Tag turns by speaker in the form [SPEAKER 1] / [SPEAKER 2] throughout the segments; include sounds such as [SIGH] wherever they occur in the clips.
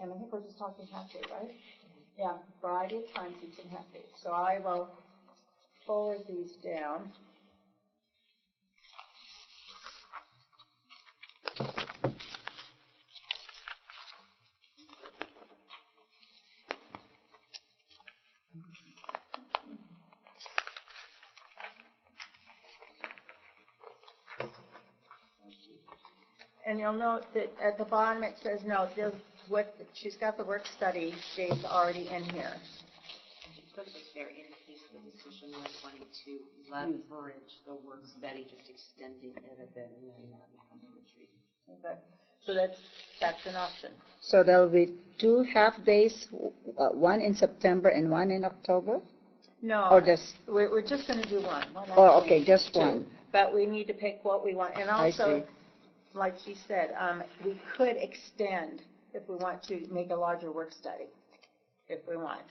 [SPEAKER 1] and I think we're just talking half day, right? Yeah, variety of times each and half day. So I will forward these down. And you'll note that at the bottom, it says, no, the, what, she's got the work study dates already in here.
[SPEAKER 2] Put this there in case the decision was wanting to leverage the work study, just extending it a bit and then not having a retreat.
[SPEAKER 1] Okay. So that's, that's an option.
[SPEAKER 3] So there will be two half-days, w- uh, one in September and one in October? Or
[SPEAKER 1] No,
[SPEAKER 3] just,
[SPEAKER 1] we're, we're just gonna do one. We're not
[SPEAKER 3] oh,
[SPEAKER 1] doing
[SPEAKER 3] okay, just
[SPEAKER 1] two.
[SPEAKER 3] one?
[SPEAKER 1] But we need to pick what we want, and
[SPEAKER 3] I
[SPEAKER 1] also,
[SPEAKER 3] see.
[SPEAKER 1] like she said, um, we could extend if we want to make a larger work study, if we want.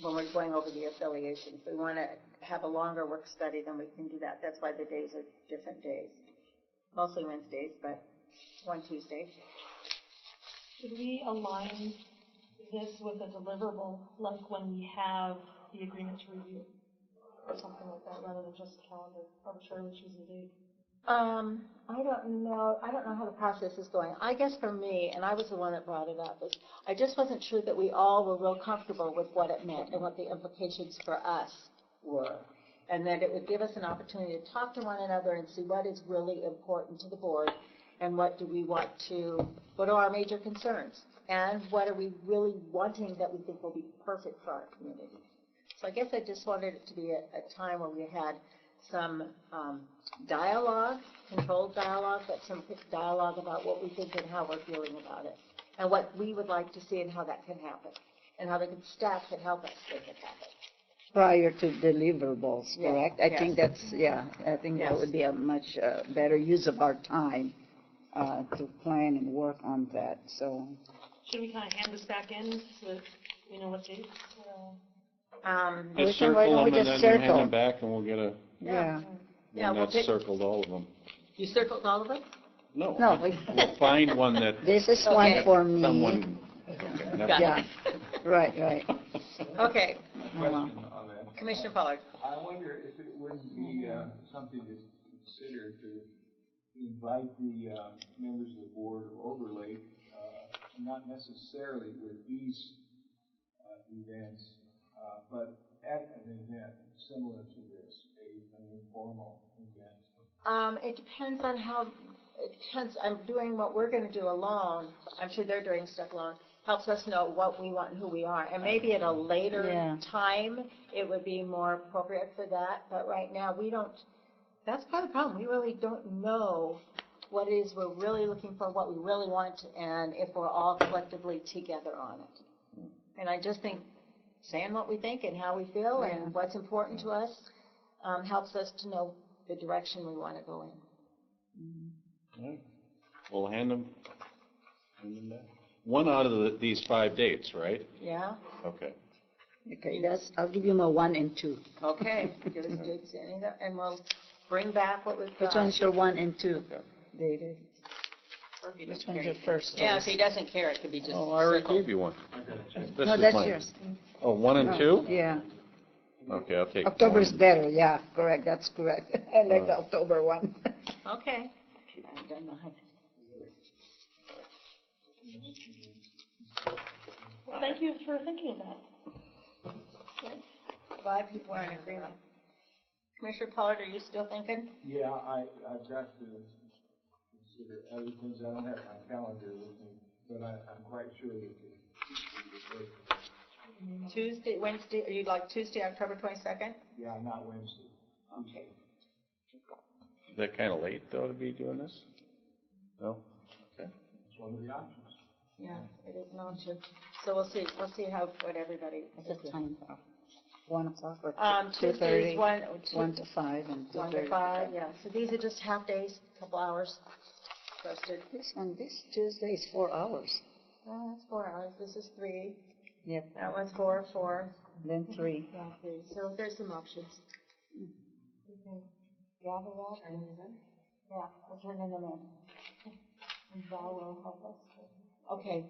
[SPEAKER 1] When we're going over the affiliations, we wanna have a longer work study, then we can do that, that's why the days are different days. Mostly Wednesdays, but one Tuesday.
[SPEAKER 4] Should we align this with a deliverable, like when we have the agreement to review? Or something like that, rather than just calendar arbitrarily choosing a date?
[SPEAKER 1] Um, I don't know, I don't know how the process is going. I guess for me, and I was the one that brought it up, is I just wasn't sure that we all were real comfortable with what it meant and what the implications for us were. And that it would give us an opportunity to talk to one another and see what is really important to the board and what do we want to, what are our major concerns? And what are we really wanting that we think will be perfect for our community? So I guess I just wanted it to be a, a time where we had some, um, dialogue, controlled dialogue, but some dialogue about what we think and how we're feeling about it, and what we would like to see and how that can happen, and how the staff can help us make it happen.
[SPEAKER 3] Prior to deliverables,
[SPEAKER 1] Yeah,
[SPEAKER 3] correct? I think
[SPEAKER 1] yes.
[SPEAKER 3] that's, yeah, I think that
[SPEAKER 1] Yes.
[SPEAKER 3] would be a much uh, better use of our time uh, to plan and work on that, so.
[SPEAKER 4] Should we kind of hand this back in with, you know, what dates? uh,
[SPEAKER 1] Um,
[SPEAKER 3] We
[SPEAKER 5] Just
[SPEAKER 3] can- why
[SPEAKER 5] circle
[SPEAKER 3] don't
[SPEAKER 5] them
[SPEAKER 3] we
[SPEAKER 5] and
[SPEAKER 3] just
[SPEAKER 5] then you hand
[SPEAKER 3] circle?
[SPEAKER 5] them back and we'll get a,
[SPEAKER 1] Yeah. Yeah,
[SPEAKER 5] one
[SPEAKER 1] we'll
[SPEAKER 5] that's
[SPEAKER 1] pick-
[SPEAKER 5] circled, all of them.
[SPEAKER 1] you circled all of them?
[SPEAKER 5] No.
[SPEAKER 3] No,
[SPEAKER 5] we'll-
[SPEAKER 3] we-
[SPEAKER 5] [LAUGHS] We'll find one that
[SPEAKER 3] This is one
[SPEAKER 1] Okay.
[SPEAKER 3] for me.
[SPEAKER 5] someone, okay, never
[SPEAKER 1] Got
[SPEAKER 3] Yeah, right, right.
[SPEAKER 1] [LAUGHS] Okay,
[SPEAKER 3] Wow.
[SPEAKER 6] question on that.
[SPEAKER 1] Commissioner Pollard.
[SPEAKER 6] I wonder if it wouldn't be uh, something to consider to invite the uh, members of the board of Overlake, uh, not necessarily with these uh, events, uh, but at an event similar to this, a- an informal event.
[SPEAKER 1] Um, it depends on how, it depends, I'm doing what we're gonna do alone, I'm sure they're doing stuff alone, helps us know what we want and who we are, and maybe at a later
[SPEAKER 3] Yeah.
[SPEAKER 1] time, it would be more appropriate for that, but right now, we don't, that's part of the problem, we really don't know what it is we're really looking for, what we really want, and if we're all collectively together on it. And I just think saying what we think and how we feel
[SPEAKER 3] Yeah.
[SPEAKER 1] and what's important to us, um, helps us to know the direction we want to go in.
[SPEAKER 5] we'll hand them, hand them back. One out of the- these five dates, right?
[SPEAKER 1] Yeah?
[SPEAKER 5] Okay.
[SPEAKER 3] Okay, that's, I'll give you my one and two.
[SPEAKER 1] Okay. [LAUGHS] Give us dates, any of that, and we'll bring back what we've
[SPEAKER 3] Which
[SPEAKER 1] got.
[SPEAKER 3] one's your one and two, David? Which one's your first
[SPEAKER 2] Yeah, if
[SPEAKER 3] choice?
[SPEAKER 2] he doesn't care, it could be just
[SPEAKER 5] Oh, I already
[SPEAKER 2] circled.
[SPEAKER 5] gave you one. This
[SPEAKER 3] No,
[SPEAKER 5] is
[SPEAKER 3] that's
[SPEAKER 5] mine.
[SPEAKER 3] yours.
[SPEAKER 5] Oh, one and
[SPEAKER 3] Oh,
[SPEAKER 5] two?
[SPEAKER 3] Yeah.
[SPEAKER 5] Okay, I'll take.
[SPEAKER 3] October
[SPEAKER 5] one.
[SPEAKER 3] is better, yeah, correct, that's correct. [LAUGHS] I like
[SPEAKER 1] Uh.
[SPEAKER 3] the October [LAUGHS] one.
[SPEAKER 1] Okay. I don't know how-
[SPEAKER 4] Well, thank you for thinking of that.
[SPEAKER 1] Five people are in agreement. Commissioner Pollard, are you still thinking?
[SPEAKER 6] Yeah, I, I've got to consider other things. I don't have my calendar with me, but I, I'm quite sure that it-
[SPEAKER 1] Tuesday, Wednesday, you'd like Tuesday, October twenty-second?
[SPEAKER 6] yeah, not Wednesday.
[SPEAKER 1] Okay.
[SPEAKER 5] Is that kind of late though to be doing this? No?
[SPEAKER 6] It's one of the options.
[SPEAKER 1] Yeah, it is an option. So we'll see, we'll see how, what everybody.
[SPEAKER 3] At the time, uh, one o'clock or
[SPEAKER 1] Um,
[SPEAKER 3] two
[SPEAKER 1] Tuesday's
[SPEAKER 3] thirty,
[SPEAKER 1] one, two-
[SPEAKER 3] one to five and two
[SPEAKER 1] one
[SPEAKER 3] thirty.
[SPEAKER 1] to five, yeah. So these are just half days, couple hours posted.
[SPEAKER 3] This one, this Tuesday is four hours,
[SPEAKER 1] Uh, that's four hours, this is three.
[SPEAKER 3] Yep.
[SPEAKER 1] That one's four, four.
[SPEAKER 3] then three.
[SPEAKER 1] Yeah, three, so there's some options. Gather that and, yeah, we'll turn them in. And Val will help us. Okay,